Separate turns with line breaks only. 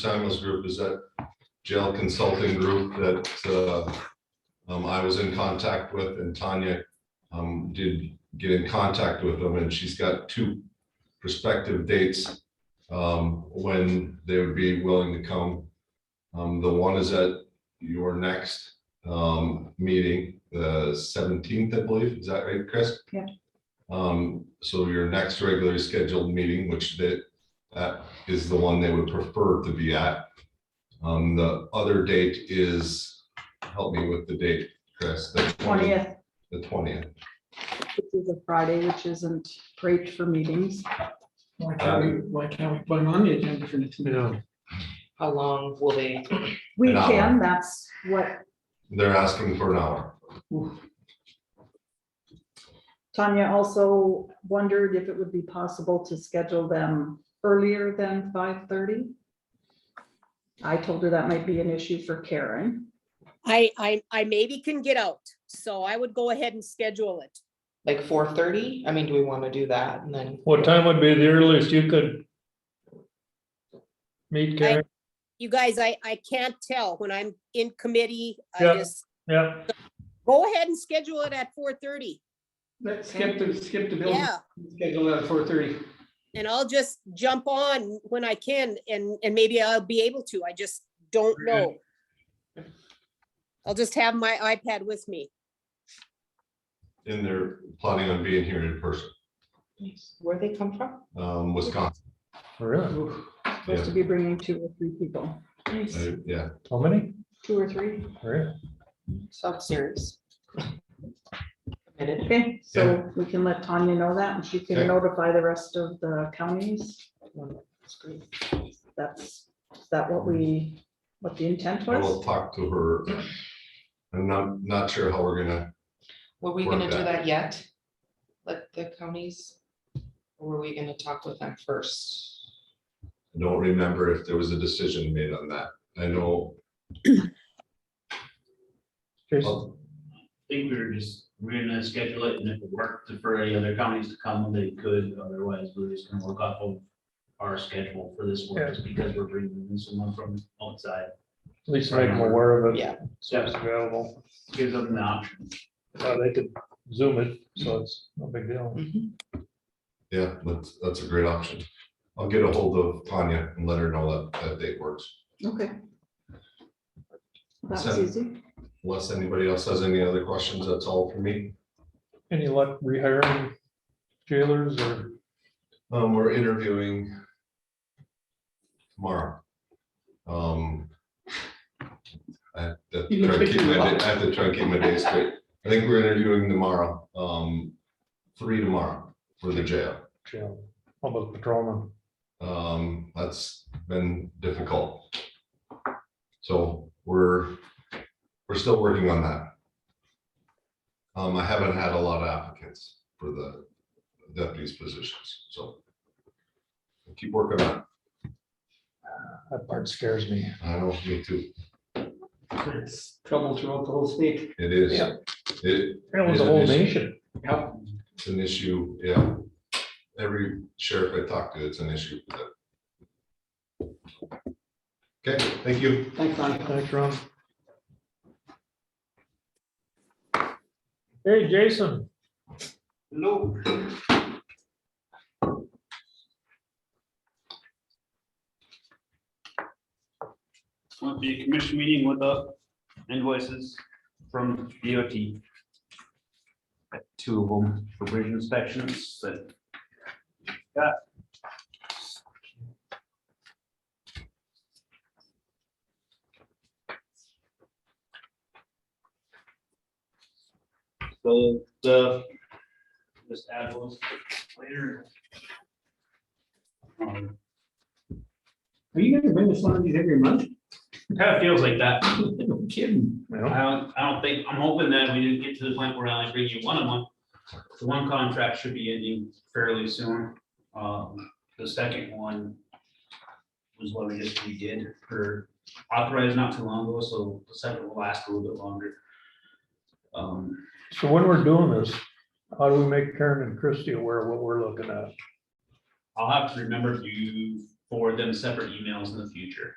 Simon's group is that jail consulting group that uh, um, I was in contact with and Tanya um, did get in contact with them and she's got two prospective dates um, when they would be willing to come. Um, The one is at your next um, meeting, the seventeenth, I believe. Is that right, Chris?
Yeah.
Um, So your next regularly scheduled meeting, which that that is the one they would prefer to be at. Um, the other date is, help me with the date, Chris, the twentieth,
Twentieth,
the twentieth.
which is a Friday, which isn't great for meetings.
Why can't we, why can't we put them on the agenda for next meeting?
How long will they,
We
An hour.
can, that's what
They're asking for an hour.
Tanya also wondered if it would be possible to schedule them earlier than five thirty. I told her that might be an issue for Karen.
I, I, I maybe can get out, so I would go ahead and schedule it.
like four thirty? I mean, do we want to do that and then?
What time would be the earliest you could? Meet Karen,
You guys, I, I can't tell when I'm in committee. I
Yeah.
just,
yeah,
go ahead and schedule it at four thirty.
Let's skip the, skip the building,
Yeah,
schedule at four thirty.
and I'll just jump on when I can and, and maybe I'll be able to. I just don't
Very
know. I'll just have my iPad with me.
And they're planning on being here in person,
Where they come from?
um, Wisconsin,
Oh, really,
Oof,
Supposed to be bringing two or three people,
Uh, yeah.
how many? Oh,
two or three.
Really?
South Series. Committed.
Okay, so we can let Tanya know that and she
Okay.
can notify the rest of the counties.
That's great.
That's, is that what we, what the intent
I
was?
will talk to her. I'm not, not sure how we're gonna,
Were we
Work
gonna do
that.
that yet? Let the counties? Or were we gonna talk with them first?
I don't remember if there was a decision made on that. I know,
Jason,
well,
I think we were just, we are gonna schedule it and if it worked for any other counties to come, they could, otherwise we're just gonna work off of our schedule for this one, just because we're bringing in someone from outside.
At least make them aware of it.
Yeah.
So it's available,
Gives them the option.
Uh, they could zoom it, so it's no big deal.
Mhm.
yeah, that's, that's a great option. I'll get a hold of Tanya and let her know that, that date works.
Okay. That was
So-
easy.
Unless anybody else has any other questions, that's all for me.
Any luck rehiring jailers or,
Um, we're interviewing tomorrow. Um, I have to
You can
try and
pick
keep my,
them
da-
up.
I have to try and keep my days straight. I think we're interviewing tomorrow, um, three tomorrow for the jail.
jail, how about patrolman?
Um, that's been difficult. So we're, we're still working on that. Um, I haven't had a lot of applicants for the deputies positions, so. Keep working on, it.
That part scares me.
I know, me too,
It's trouble throughout the whole state.
it is,
Yeah.
it,
That was the whole nation.
Yep,
it's an issue, yeah. Every sheriff I talk to, it's an issue. with it. Okay, thank you.
thanks, Monica.
Thanks, Ron. Hey, Jason,
Hello. Want the commission meeting with the invoices from DOT. Got Two of them for bridge inspections that. Got. So the, just add those later. Um,
Are you gonna bring us one of these every month?
Kind of feels like that.
No kidding.
you
I
know,
don't, I don't think, I'm hoping that we didn't get to the point where I only bring you one a month. The one contract should be ending fairly soon. Um, the second one was what we just redid for authorized not too long ago, so the second will last a little bit longer. Um,
so when we're doing this, how do we make Karen and Christie aware of what we're looking at?
I'll have to remember to forward them separate emails in the future.